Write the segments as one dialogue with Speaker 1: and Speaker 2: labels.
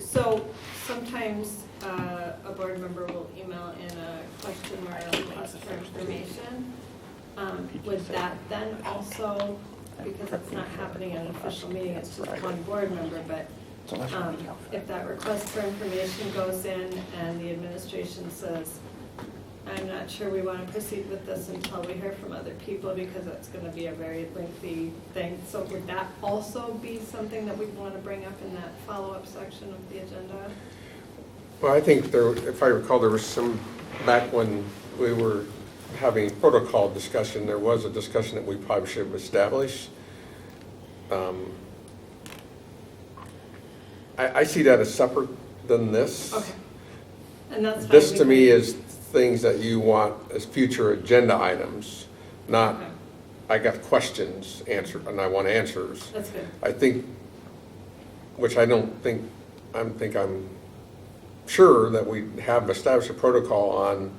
Speaker 1: So sometimes uh, a board member will email in a question or a request for information. Um, Would that then also, because it's not happening at an official meeting, it's just one board member, but um, if that request for information goes in and the administration says, I'm not sure we want to proceed with this until we hear from other people because it's going to be a very lengthy thing. So would that also be something that we'd want to bring up in that follow-up section of the agenda?
Speaker 2: Well, I think there, if I recall, there was some, back when we were having protocol discussion, there was a discussion that we probably should have established. Um, I, I see that as separate than this.
Speaker 1: Okay. And that's fine.
Speaker 2: This
Speaker 1: we
Speaker 2: to
Speaker 1: can-
Speaker 2: me is things that you want as future agenda items, not,
Speaker 1: Okay,
Speaker 2: I got questions answered, and I want answers.
Speaker 1: That's good.
Speaker 2: I think, which I don't think, I am think I'm sure that we have established a protocol on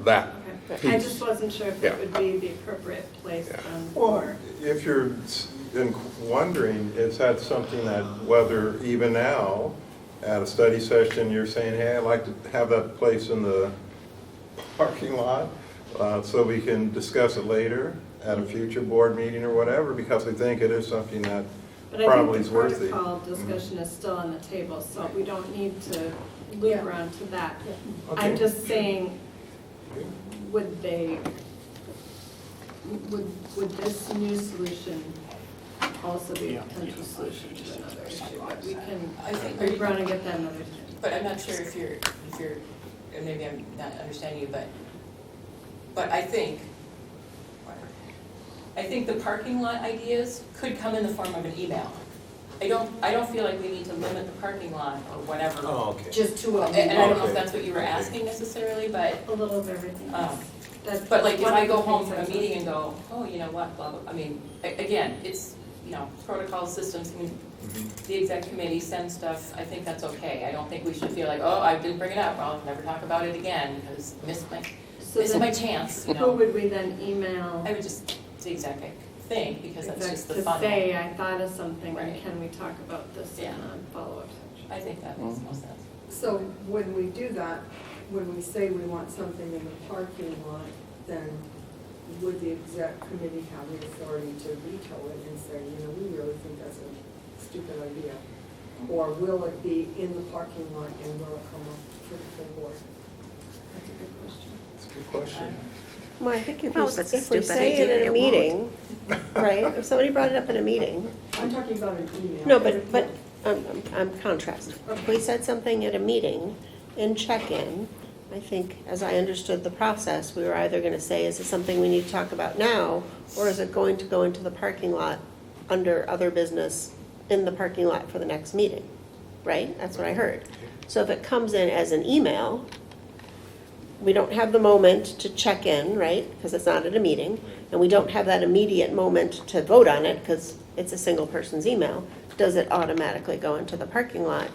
Speaker 2: that.
Speaker 1: Okay. I just wasn't sure if
Speaker 2: Yeah.
Speaker 1: it would be the appropriate place
Speaker 2: Yeah.
Speaker 1: then
Speaker 3: Well,
Speaker 1: for,
Speaker 3: if you're s- in- wondering, is that something that whether even now, at a study session, you're saying, hey, I'd like to have that place in the parking lot uh, so we can discuss it later at a future board meeting or whatever, because we think it is something that
Speaker 1: but I
Speaker 3: probably
Speaker 1: think
Speaker 3: is
Speaker 1: the
Speaker 3: worthy.
Speaker 1: protocol discussion is still on the table, so we don't need to loop around to that. I'm
Speaker 3: Okay.
Speaker 1: just saying, would they, would, would this new solution also be a potential solution to another issue? But we can,
Speaker 4: I think-
Speaker 1: we want to get that another time.
Speaker 4: But I'm not sure if you're, if you're, and maybe I'm not understanding you, but, but I think, I think the parking lot ideas could come in the form of an email. I don't, I don't feel like we need to limit the parking lot or whatever.
Speaker 3: Oh.
Speaker 5: Just two of
Speaker 4: And
Speaker 5: them.
Speaker 4: and I don't know if that's what you were asking necessarily, but,
Speaker 1: A little of everything
Speaker 4: um,
Speaker 1: else. That's
Speaker 4: but like if
Speaker 1: one of
Speaker 4: I go
Speaker 1: the
Speaker 4: home
Speaker 1: things
Speaker 4: from a
Speaker 1: I'm-
Speaker 4: meeting and go, oh, you know what, blah, blah, I mean, a- again, it's, you know, protocol systems, I mean, the exec committee sends stuff, I think that's okay. I don't think we should feel like, oh, I didn't bring it up, I'll never talk about it again, because missed my,
Speaker 1: So
Speaker 4: missed
Speaker 1: then
Speaker 4: my chance, you
Speaker 1: Who
Speaker 4: know?
Speaker 1: would we then email?
Speaker 4: I would just, the exec thing, because that's just the
Speaker 1: to
Speaker 4: fun.
Speaker 1: say, I thought of something, and
Speaker 4: Right.
Speaker 1: can we talk about this in
Speaker 4: Yeah.
Speaker 1: a follow-up section?
Speaker 4: I think that makes most sense.
Speaker 6: So when we do that, when we say we want something in the parking lot, then would the exec committee have the authority to veto it and say, you know, we really think that's a stupid idea? Or will it be in the parking lot and will it come up to the full board?
Speaker 1: That's a good question.
Speaker 3: It's a good question.
Speaker 7: Well, I think if
Speaker 8: Well,
Speaker 7: we,
Speaker 8: if
Speaker 7: if
Speaker 8: we
Speaker 7: we
Speaker 8: stupid
Speaker 7: say
Speaker 8: idea,
Speaker 7: it in
Speaker 8: it
Speaker 7: a
Speaker 8: won't.
Speaker 7: meeting, right, if somebody brought it up in a meeting,
Speaker 6: I'm talking about an email.
Speaker 7: no, but, but, um, um, I'm contrast. If we said something at a meeting in check-in, I think, as I understood the process, we were either gonna say, is it something we need to talk about now? Or is it going to go into the parking lot under other business in the parking lot for the next meeting, right? That's what I heard. So if it comes in as an email, we don't have the moment to check in, right, because it's not at a meeting, and we don't have that immediate moment to vote on it, because it's a single person's email, does it automatically go into the parking lot?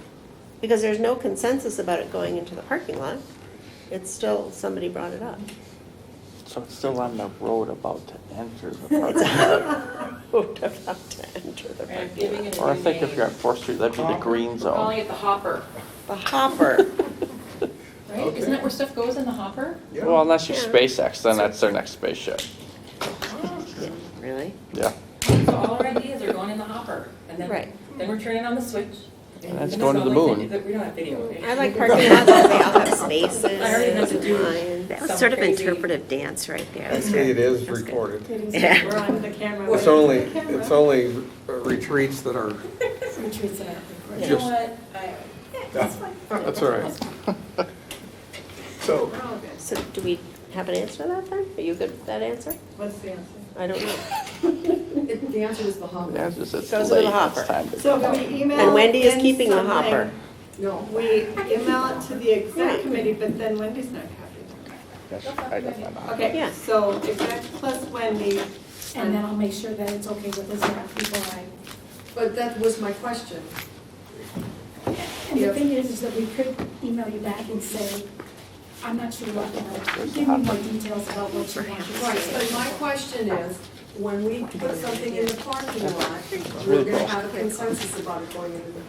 Speaker 7: Because there's no consensus about it going into the parking lot, it's still, somebody brought it up.
Speaker 9: So it's still on the road about to enter the
Speaker 7: It's
Speaker 9: parking lot.
Speaker 7: out, vote about to enter the
Speaker 4: Right,
Speaker 7: parking
Speaker 4: giving
Speaker 7: lot.
Speaker 4: it a
Speaker 9: Mm-hmm. Or I
Speaker 4: new
Speaker 9: think if
Speaker 4: name.
Speaker 9: you're on Fourth Street, that'd be the green
Speaker 4: We're calling
Speaker 9: zone.
Speaker 4: it the hopper,
Speaker 7: The hopper,
Speaker 4: right? Isn't that where stuff goes in the hopper?
Speaker 3: Yeah.
Speaker 9: Well, unless you're
Speaker 7: Yeah.
Speaker 9: SpaceX, then that's their next spaceship.
Speaker 1: Oh.
Speaker 7: really?
Speaker 9: Yeah,
Speaker 4: So all our ideas are going in the hopper, and then,
Speaker 7: Right.
Speaker 4: then we're turning on the switch.
Speaker 9: And that's
Speaker 4: then
Speaker 9: going to
Speaker 4: it's
Speaker 9: the
Speaker 4: all like
Speaker 9: moon.
Speaker 4: video- We don't have video. okay?
Speaker 7: I like parking lots, because they all have spaces
Speaker 4: I already have to
Speaker 7: and
Speaker 4: do it.
Speaker 7: lines.
Speaker 8: That was
Speaker 4: Some
Speaker 8: sort of
Speaker 4: crazy-
Speaker 8: interpretive dance right there.
Speaker 2: Actually, it is
Speaker 8: That's good.
Speaker 2: recorded.
Speaker 8: Yeah.
Speaker 1: We're on the camera.
Speaker 2: It's only, it's only uh, retreats that are,
Speaker 4: You know
Speaker 2: Just-
Speaker 4: what? I-
Speaker 2: that's all right.
Speaker 3: So,
Speaker 1: We're all good.
Speaker 7: So do we have an answer to that then? Are you good with that answer?
Speaker 1: What's the answer?
Speaker 7: I don't know.
Speaker 6: It- The answer is the hopper.
Speaker 9: the answer is it's
Speaker 7: Goes with
Speaker 9: late,
Speaker 7: the hopper.
Speaker 9: it's time to
Speaker 1: So
Speaker 9: go.
Speaker 1: if we email.
Speaker 7: And Wendy is
Speaker 1: in
Speaker 7: keeping the
Speaker 1: something,
Speaker 7: hopper.
Speaker 6: No.
Speaker 1: We email it to the exec
Speaker 7: Right.
Speaker 1: committee, but then Wendy's not copied.
Speaker 9: Yes, I got my mind.
Speaker 1: Okay,
Speaker 7: Yeah.
Speaker 1: so exec plus Wendy.
Speaker 8: And then I'll make sure that it's okay with the staff people I,
Speaker 6: But that was my question.
Speaker 8: and
Speaker 6: Yeah.
Speaker 8: the thing is, is that we could email you back and say, I'm not sure what, you know, give me more details about what you want.
Speaker 6: Right, but my question is, when we put something in the parking lot, we're gonna have a consensus about it going into the